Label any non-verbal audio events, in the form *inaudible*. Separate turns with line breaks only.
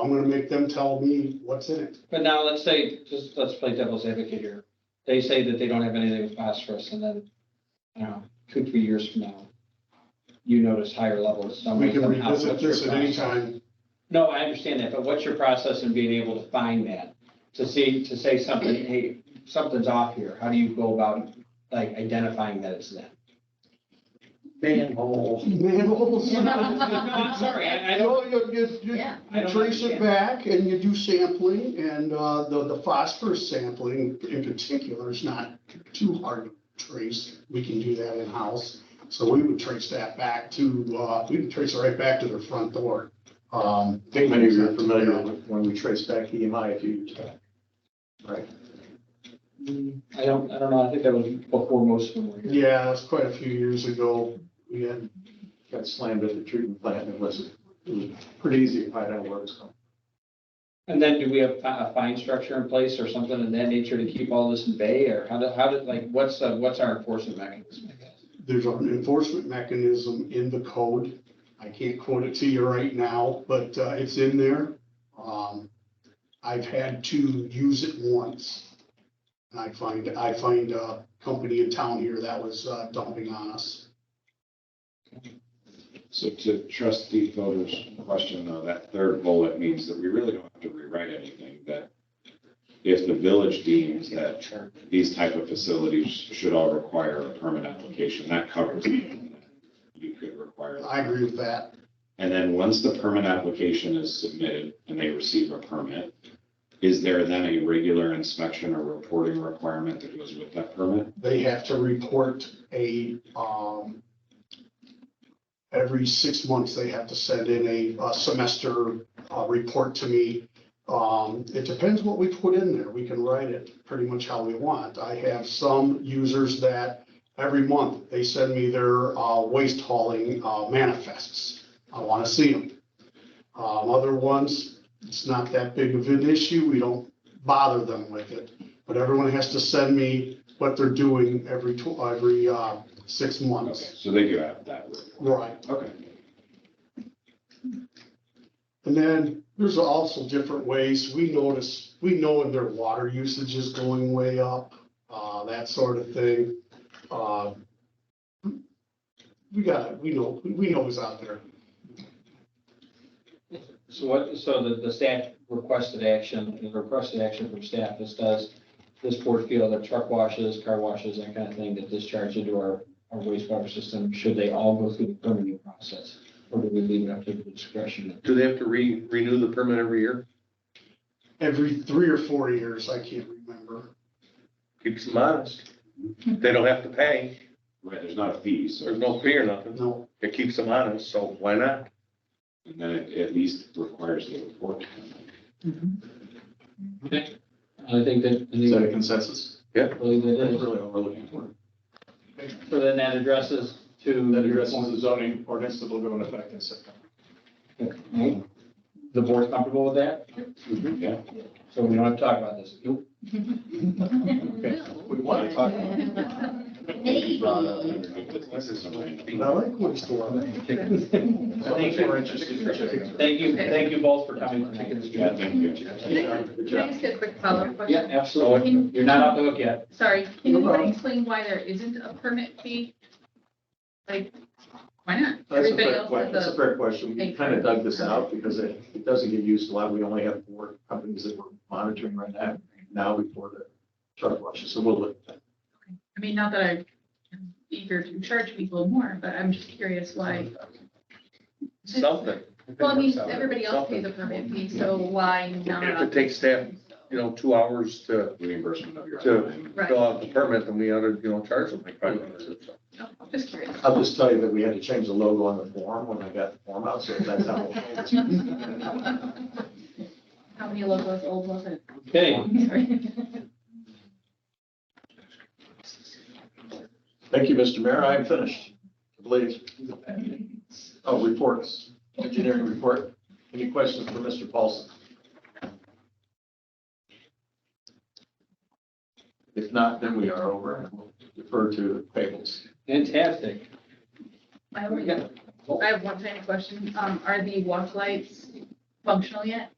I'm gonna make them tell me what's in it.
But now let's say, just let's play devil's advocate here. They say that they don't have anything with phosphorus and then, you know, two, three years from now, you notice higher levels somewhere.
We can
somehow.
revisit
What's your
this at any
process?
time.
No, I understand that, but what's your process in being able to find that? To see, to say something, hey, something's off here. How do you go about like identifying that it's that?
Manhole. Manholes.
No, I'm sorry, I, I don't,
No, you, you, you-
Yeah.
I
you
don't
trace it
understand.
back and you do sampling and, uh, the, the phosphorus sampling in particular is not too hard to trace. We can do that in-house. So we would trace that back to, uh, we would trace it right back to their front door. Um, they
Many of you
use
are
that to
familiar
do that.
with when we trace back E EMI a few years back.
I don't, I don't know. I think that was before most of them were here.
Yeah, it was quite a few years ago. We had
Got slammed at the treatment plant and it was, it was pretty easy to find out where it was coming.
And then do we have fi- a fine structure in place or something of that nature to keep all this in bay or how did, how did, like, what's, uh, what's our enforcement mechanism? I guess?
there's an enforcement mechanism in the code. I can't quote it to you right now, but uh, it's in there. Um, I've had to use it once. And I find, I find a company in town here that was uh, dumping on us.
So to trustee Fodor's question, though, that third bullet means that we really don't have to rewrite anything, that if the village deems that these type of facilities should all require a permit application, that covers it. you could require.
I agree with that.
And then once the permit application is submitted and they receive a permit, is there then a regular inspection or reporting requirement that goes with that permit?
They have to report a, um, every six months, they have to send in a uh, semester uh, report to me. Um, It depends what we put in there. We can write it pretty much how we want. I have some users that every month, they send me their uh, waste hauling uh, manifests. I want to see them. Other ones, it's not that big of an issue. We don't bother them with it. But everyone has to send me what they're doing every, tw- every uh, six
Okay,
months.
so they do have that. report.
Right.
Okay.
And then there's also different ways. We notice, we know when their water usage is going way up, uh, that sort of thing. Uh, We got, we know, we know who's out there.
So what, so the, the staff requested action, the requested action from staff, this does, this board feel that truck washes, car washes, that kind of thing that discharge into our, our wastewater system, should they all go through the permitting process? Or do we leave it up to the discretion?
Do they have to re, renew the permit every year?
Every three or four years, I can't remember.
Keeps them honest. They don't have to pay.
Right, there's not a fee, so.
There's no fee or nothing.
No,
It keeps them honest, so why not?
And then it at least requires the report.
Okay. I think that, I
Is that a
think
consensus?
I believe that
That's
is.
really all we're looking for.
So then that addresses to.
That addresses the zoning ordinance that will go into effect in September.
Okay. The board's comfortable with that?
Yeah.
So we don't have to talk about this. Nope.
We want to talk about it.
but I like waste water.
I think we're interested in checking.
Thank you, thank you both for coming
Yeah,
tonight.
thank you.
Can I ask a quick follow-up
Yeah,
question?
absolutely.
Can-
You're not off the hook yet.
Sorry, can anybody explain why there isn't a permit fee? Like, why not?
That's a
Everybody
fair
else
question. That's
has
a
a,
fair question. We kind of dug this out because it, it doesn't get used a lot. We only have four companies that we're monitoring right now, now before the truck washes. So we'll look at that.
I mean, not that I'm eager to charge people more, but I'm just curious why.
Something.
Well, I mean, everybody else pays a permit fee, so why not?
If it takes staff, you know, two hours to
Reimbursement of your
Sure.
time.
Right.
fill out the permit, then we ought to, you know, charge them like five dollars or something.
No, Oh, I'm Just curious.
I'll just tell you that we had to change the logo on the form when I got the form out, so that's how. we'll pay this.
How many logos old was it?
Okay,
*laughs* Sorry.
Thank you, Mr. Mayor. I'm finished. I believe. Oh, reports, engineering report. Any questions for Mr. Paulson? If not, then we are over and we'll defer to the tables.
fantastic.
*laughs* I only got- I have one tiny question. Um, are the walk lights functional yet?